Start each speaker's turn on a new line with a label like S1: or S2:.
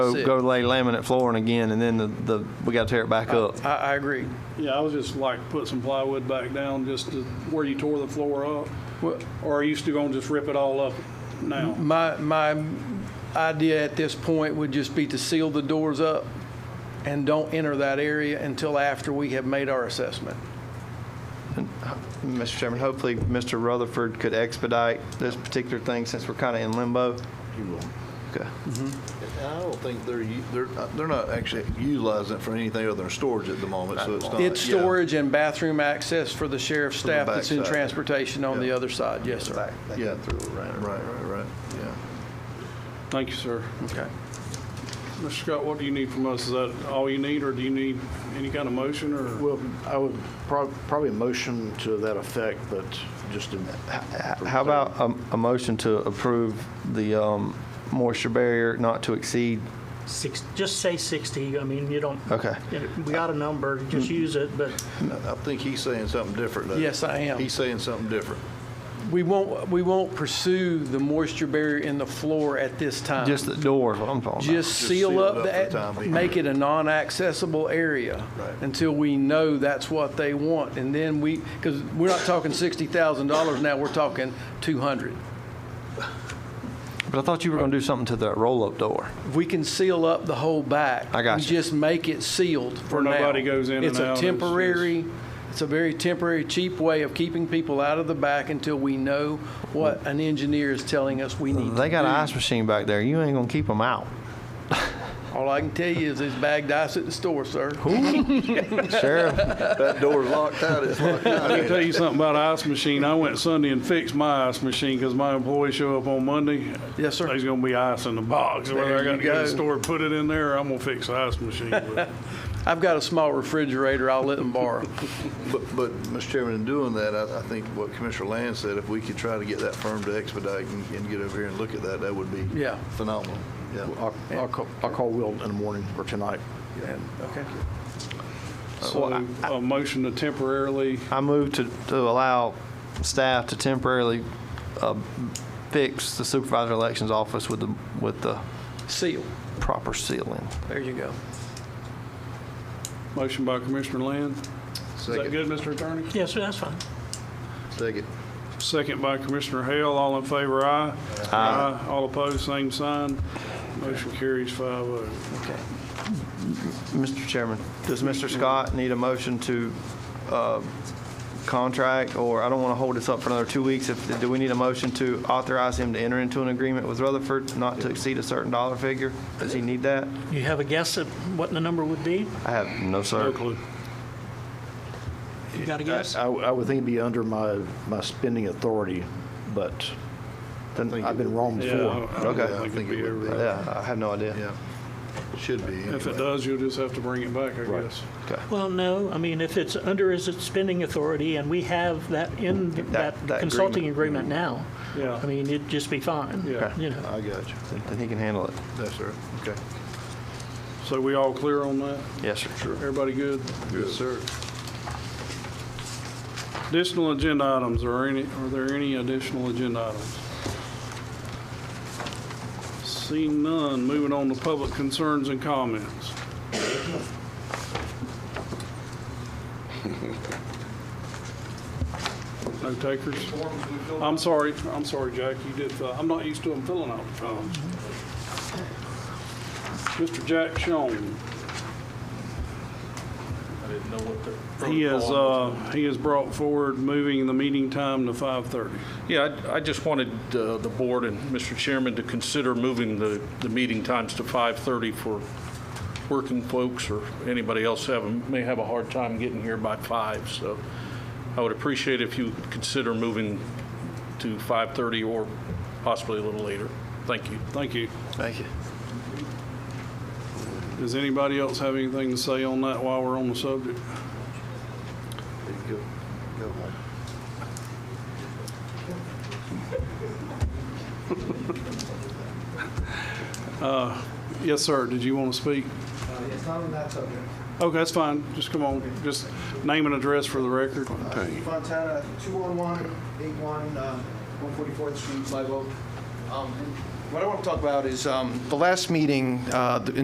S1: Go, go lay laminate flooring again, and then the, the, we gotta tear it back up.
S2: I, I agree.
S3: Yeah, I was just like, put some plywood back down just to where you tore the floor up.
S2: Well-
S3: Or are you still gonna just rip it all up now?
S2: My, my idea at this point would just be to seal the doors up and don't enter that area until after we have made our assessment.
S1: Mr. Chairman, hopefully Mr. Rutherford could expedite this particular thing since we're kinda in limbo.
S4: You will.
S1: Okay.
S4: And I don't think they're, u- they're, uh, they're not actually utilizing it for anything other than storage at the moment, so it's not.
S2: It's
S4: Uh, yeah.
S2: storage and bathroom access for the sheriff's
S4: the
S2: staff that's in
S4: backside.
S2: transportation on the
S4: Yeah.
S2: other side, yes, sir.
S4: Yeah, through, right, right, right, yeah.
S3: Thank you, sir.
S2: Okay.
S3: Mr. Scott, what do you need from us? Is that all you need, or do you need any kind of motion, or?
S5: Well, I would prob- probably motion to that effect, but just in.
S1: How about a, a motion to approve the, um, moisture barrier not to exceed?
S6: Six, just say 60, I mean, you don't,
S1: Okay.
S6: you- we got a number, just use it, but
S4: I I think he's saying something different, though.
S2: Yes, I am.
S4: He's saying something different.
S2: We won't, we won't pursue the moisture barrier in the floor at this time.
S1: Just the door, is what I'm talking about.
S2: Just seal up
S4: for the time
S2: that,
S4: being.
S2: make it a non-accessible area
S4: Right.
S2: until we know that's what they want. And then we, because we're not talking sixty thousand dollars now, we're talking two hundred.
S1: But I thought you were gonna do something to that roll-up door.
S2: If we can seal up the whole back.
S1: I got
S2: we
S1: you.
S2: just make it sealed for
S3: Where
S2: now.
S3: nobody goes in and
S2: It's
S3: out,
S2: a
S3: it's
S2: temporary, it's a very temporary, cheap way of keeping people out of the back until we know what an engineer is telling us we need to
S1: They got
S2: do.
S1: an ice machine back there. You ain't gonna keep them out.
S2: All I can tell you is it's bagged ice at the store, sir.
S1: Sheriff,
S4: That door's locked out, it's locked out.
S3: I can tell you something about an ice machine. I went Sunday and fixed my ice machine, because my employees show up on Monday.
S2: Yes, sir.
S3: There's gonna be ice in the box, whether I
S2: There you
S3: gotta go to
S2: go.
S3: the store, and put it in there, or I'm gonna fix the ice machine. but-
S2: I've got a small refrigerator I'll let them borrow.
S4: But, but, Mr. Chairman, in doing that, I, I think what Commissioner Land said, if we could try to get that firm to expedite and, and get over here and look at that, that would be
S2: Yeah.
S4: phenomenal. Yeah.
S5: I'll, I'll call- I'll call Will in the morning or tonight. and-
S2: Okay.
S3: So, a motion to temporarily,
S1: I move to, to allow staff to temporarily, uh, fix the supervisor elections office with the, with the
S2: Seal.
S1: proper sealing.
S2: There you go.
S3: motion by Commissioner Land. Is that
S4: Second,
S3: good, Mr. Attorney?
S6: yes, that's fine.
S4: second.
S3: Second by Commissioner Hale, all in favor, aye. Aye. All opposed, same sign. Motion carries five oh.
S2: Okay.
S1: Mr. Chairman, does Mr. Scott need a motion to uh, contract, or I don't want to hold this up for another two weeks, if, do we need a motion to authorize him to enter into an agreement with Rutherford not to exceed a certain dollar figure? Does he need that?
S6: You have a guess at what the number would be?
S1: I have, no,
S3: No
S1: sir.
S3: clue.
S6: You got a guess?
S5: I, I would think it'd be under my, my spending authority, but I've been wrong
S3: Yeah, I
S5: before.
S3: don't- I don't
S1: Okay.
S4: Yeah,
S3: think
S4: I
S3: it'd
S4: think
S3: be
S4: it
S3: over
S4: would be.
S3: there.
S1: Yeah, I have no idea.
S4: Yeah, should be.
S3: If
S4: anyway.
S3: it does, you'll just have to bring it back, I guess.
S6: Well, no, I mean, if it's under his spending authority and we have that in that
S1: that
S6: consulting agreement now,
S3: Yeah.
S6: I mean, it'd just be fine.
S3: Yeah.
S6: You know,
S4: I got you.
S1: Then he can handle it.
S4: Yes, sir. Okay.
S3: So we all clear on that?
S1: Yes, sir.
S3: Everybody good?
S4: Yes, sir.
S3: Additional agenda items, are any, are there any additional agenda items? Seeing none, moving on to public concerns and comments. No takers? I'm sorry, I'm sorry, Jack, you did, fill- I'm not used to them filling out the forms. Mr. Jack Schoen. He has, uh, he has brought forward moving the meeting time to 5:30.
S7: Yeah, I I just wanted uh, the board and Mr. Chairman to consider moving the, the meeting times to 5:30 for working folks or anybody else have, may have a hard time getting here by 5. So I would appreciate if you consider moving to 5:30 or possibly a little later. Thank you.
S3: Thank you.
S4: Thank you.
S3: Does anybody else have anything to say on that while we're on the subject?
S4: There you go. Go home.
S3: Uh, Yes, sir, did you want to speak?
S8: It's Uh, not on that subject.
S3: Okay, that's fine, just come on, just name and address for the record.
S8: Fontana, 201, 81, uh, 144th Street, Live Oak. Um, and
S1: What I want to talk about is, um, the last meeting, uh, the-